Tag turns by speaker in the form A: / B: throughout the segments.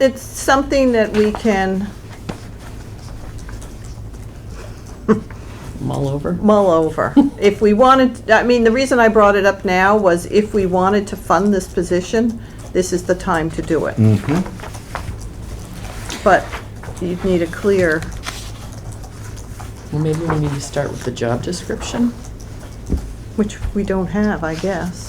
A: it's something that we can
B: all over.
A: mull over. If we wanted, I mean, the reason I brought it up now was if we wanted to fund this position, this is the time to do it. But you'd need a clear,
B: Well, maybe we need to start with the job description.
A: which we don't have, I guess.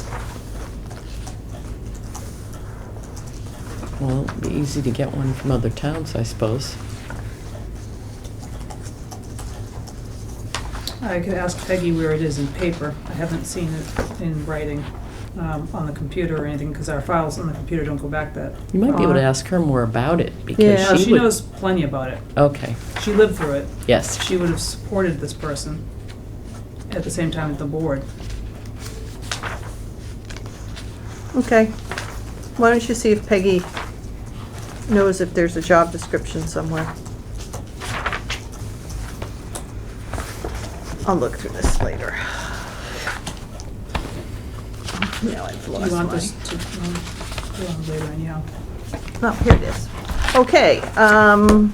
B: Well, it'd be easy to get one from other towns, I suppose.
C: I could ask Peggy where it is in paper. I haven't seen it in writing um, on the computer or anything, because our files on the computer don't go back that.
B: You might be able to
C: far.
B: ask her more about it
A: Yeah.
C: No,
B: because she
C: she
B: would.
C: knows plenty about it.
B: Okay,
C: She lived through it.
B: yes.
C: She would have supported this person at the same time as the board.
A: Okay. Why don't you see if Peggy knows if there's a job description somewhere? I'll look through this later. Now I've
C: Do
A: lost
C: you want
A: my-
C: this to, um, go on later anyhow?
A: No, Oh, here it is. Okay, um,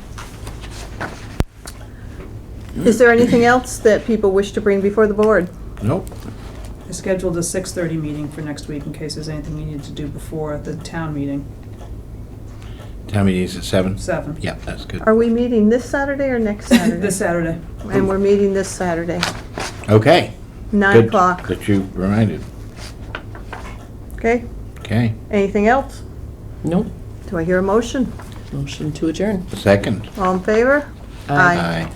A: is there anything else that people wish to bring before the board?
D: Nope.
C: I scheduled a 6:30 meeting for next week in case there's anything you need to do before the town meeting,
D: Town meeting's at seven?
C: seven.
D: Yeah, that's good.
A: Are we meeting this Saturday or next Saturday?
C: This Saturday.
A: And we're meeting this Saturday,
D: Okay.
A: nine
D: Good
A: o'clock,
D: That you reminded.
A: okay?
D: Okay,
A: Anything else?
B: Nope.
A: Do I hear a motion?
B: Motion to adjourn.
D: second.
A: All in favor?
B: Aye.
D: Aye.